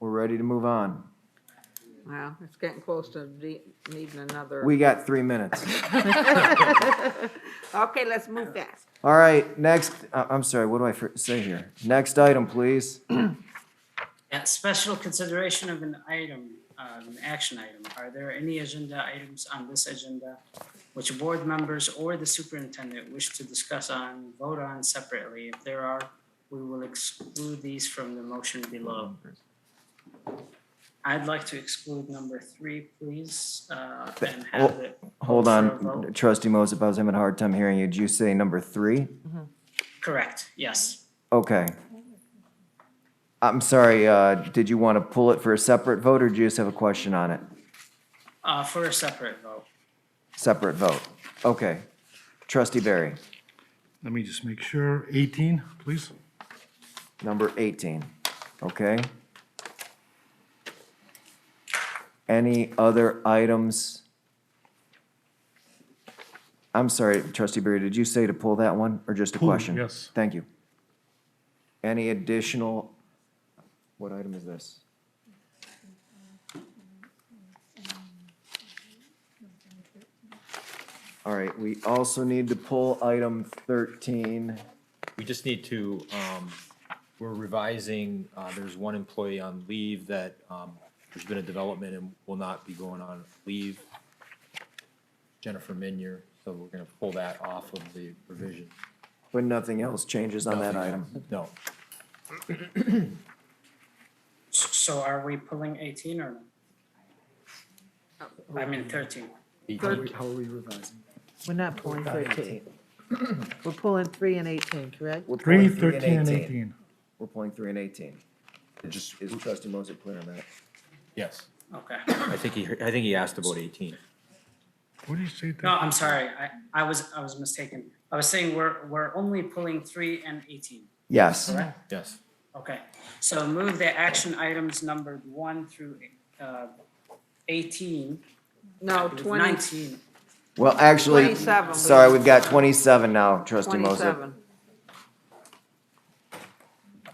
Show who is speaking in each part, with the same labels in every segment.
Speaker 1: We're ready to move on.
Speaker 2: Wow, it's getting close to de- needing another.
Speaker 1: We got three minutes.
Speaker 2: Okay, let's move fast.
Speaker 1: All right, next, uh, I'm sorry, what do I fir- say here? Next item, please.
Speaker 3: Yeah, special consideration of an item, uh, an action item. Are there any agenda items on this agenda which board members or the superintendent wish to discuss on, vote on separately? If there are, we will exclude these from the motion below. I'd like to exclude number three, please, uh, and have it.
Speaker 1: Hold
Speaker 3: for a vote.
Speaker 1: on, trustee Moses, I was having a hard time hearing you. Did you say number three?
Speaker 3: Correct, yes.
Speaker 1: Okay. I'm sorry, uh, did you want to pull it for a separate vote or do you just have a question on it?
Speaker 3: Uh, For a separate vote.
Speaker 1: Separate vote. Okay. Trustee Barry,
Speaker 4: Let me just make sure. 18, please.
Speaker 1: number 18. Okay. Any other items? I'm sorry, trustee Barry, did you say to pull that one or just a
Speaker 4: Pull,
Speaker 1: question?
Speaker 4: yes.
Speaker 1: Thank you. Any additional, what item is this? All right, we also need to pull item 13.
Speaker 5: We just need to, um, we're revising, uh, there's one employee on leave that, um, there's been a development and will not be going on leave. Jennifer Minier, so we're gonna pull that off of the revision.
Speaker 1: But nothing else changes on that item.
Speaker 5: No,
Speaker 3: S- So are we pulling 18 or no? I mean 13.
Speaker 6: We're not pulling thirteen. We're pulling three and eighteen, correct?
Speaker 1: We're pulling
Speaker 4: 3, 13, and 18.
Speaker 1: We're pulling three and eighteen. Is is trustee Moses clear on that?
Speaker 5: yes,
Speaker 3: Okay.
Speaker 5: I think he, I think he asked about eighteen.
Speaker 4: What do you say?
Speaker 3: No, I'm sorry. I, I was, I was mistaken. I was saying we're, we're only pulling three and 18.
Speaker 1: Yes.
Speaker 5: Yes,
Speaker 3: Okay. So move the action items numbered one through uh, 18.
Speaker 2: No,
Speaker 3: I believe
Speaker 2: Oh, twenty,
Speaker 3: 19.
Speaker 1: Well, actually,
Speaker 2: 27.
Speaker 1: sorry, we've got twenty-seven now, trustee Moses.
Speaker 2: twenty-seven.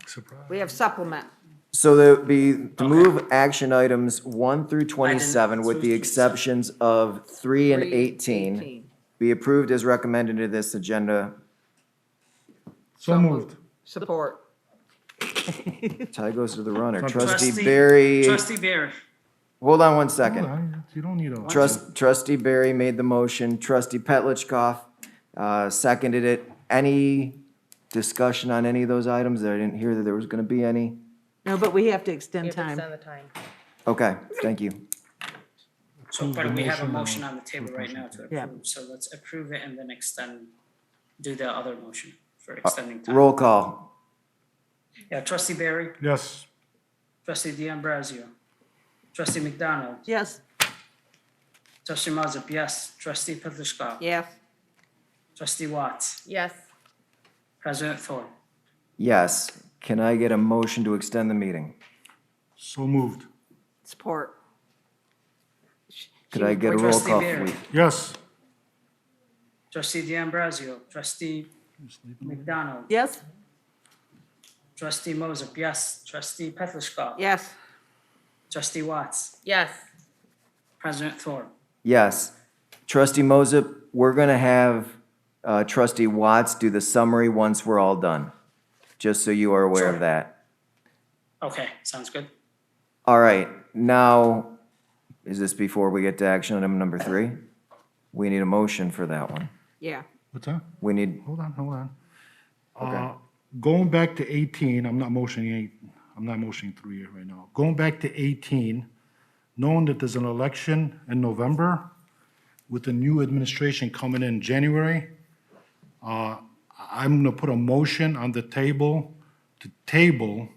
Speaker 4: Surprise.
Speaker 2: We have supplement.
Speaker 1: So there'd be to move action items one through twenty-seven with
Speaker 3: so
Speaker 1: the
Speaker 3: it's twenty-seven.
Speaker 1: exceptions of three and
Speaker 2: Three,
Speaker 1: eighteen be approved as recommended to this agenda.
Speaker 4: So moved.
Speaker 2: Support.
Speaker 1: Tie goes to the runner. Trustee
Speaker 3: Trustee-
Speaker 1: Barry,
Speaker 3: Trustee Barry,
Speaker 1: hold on one
Speaker 4: Hold
Speaker 1: second.
Speaker 4: on, You don't need a.
Speaker 1: Trust, trustee Barry made the motion, trustee Petlicoff, uh, seconded it. Any discussion on any of those items? I didn't hear that there was gonna be any.
Speaker 6: No, but we have to extend time.
Speaker 7: the time.
Speaker 1: Okay, thank you.
Speaker 3: so,
Speaker 4: Approve the
Speaker 3: but we have a
Speaker 4: motion
Speaker 3: motion
Speaker 4: and-
Speaker 3: on the table right now to
Speaker 6: Yeah.
Speaker 3: approve. So let's approve it and then extend, do the other motion for extending time.
Speaker 1: Uh, Roll call.
Speaker 3: Yeah, trustee Barry,
Speaker 4: Yes.
Speaker 3: trustee D'Ambrosio, trustee McDonald,
Speaker 6: Yes,
Speaker 3: trustee Mazza, yes, trustee Petlicoff,
Speaker 2: Yes,
Speaker 3: trustee Watts,
Speaker 7: Yes,
Speaker 3: president Thor.
Speaker 1: Yes. Can I get a motion to extend the meeting?
Speaker 4: So moved.
Speaker 2: support.
Speaker 1: Could I get a roll
Speaker 3: Trustee
Speaker 1: call?
Speaker 3: Barry.
Speaker 1: please?
Speaker 4: Yes.
Speaker 3: Trustee D'Ambrosio, trustee McDonald,
Speaker 6: yes,
Speaker 3: trustee Moses, yes, trustee Petlicoff,
Speaker 2: Yes,
Speaker 3: trustee Watts,
Speaker 7: yes,
Speaker 3: president Thor.
Speaker 1: Yes. Trustee Moses, we're gonna have uh, trustee Watts do the summary once we're all done, just so you are aware of
Speaker 3: Sure.
Speaker 1: that.
Speaker 3: Okay, sounds good.
Speaker 1: All right, now, is this before we get to action item number three? We need a motion for that one.
Speaker 2: yeah.
Speaker 4: What's that?
Speaker 1: We need,
Speaker 4: Hold on, hold on. Uh, Going back to 18, I'm not motioning, eight. I'm not motioning three here right now. Going back to 18, knowing that there's an election in November with the new administration coming in January, uh, I'm going to put a motion on the table to table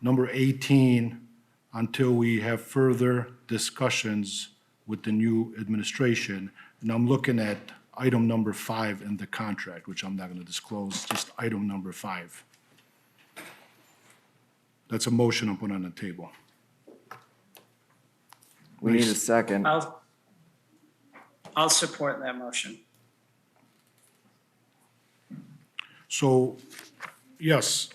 Speaker 4: number 18 until we have further discussions with the new administration. And I'm looking at item number five in the contract, which I'm not going to disclose, just item number five. That's a motion I'm putting on the table.
Speaker 1: we need a second.
Speaker 3: I'll, I'll support that motion.
Speaker 4: So, yes,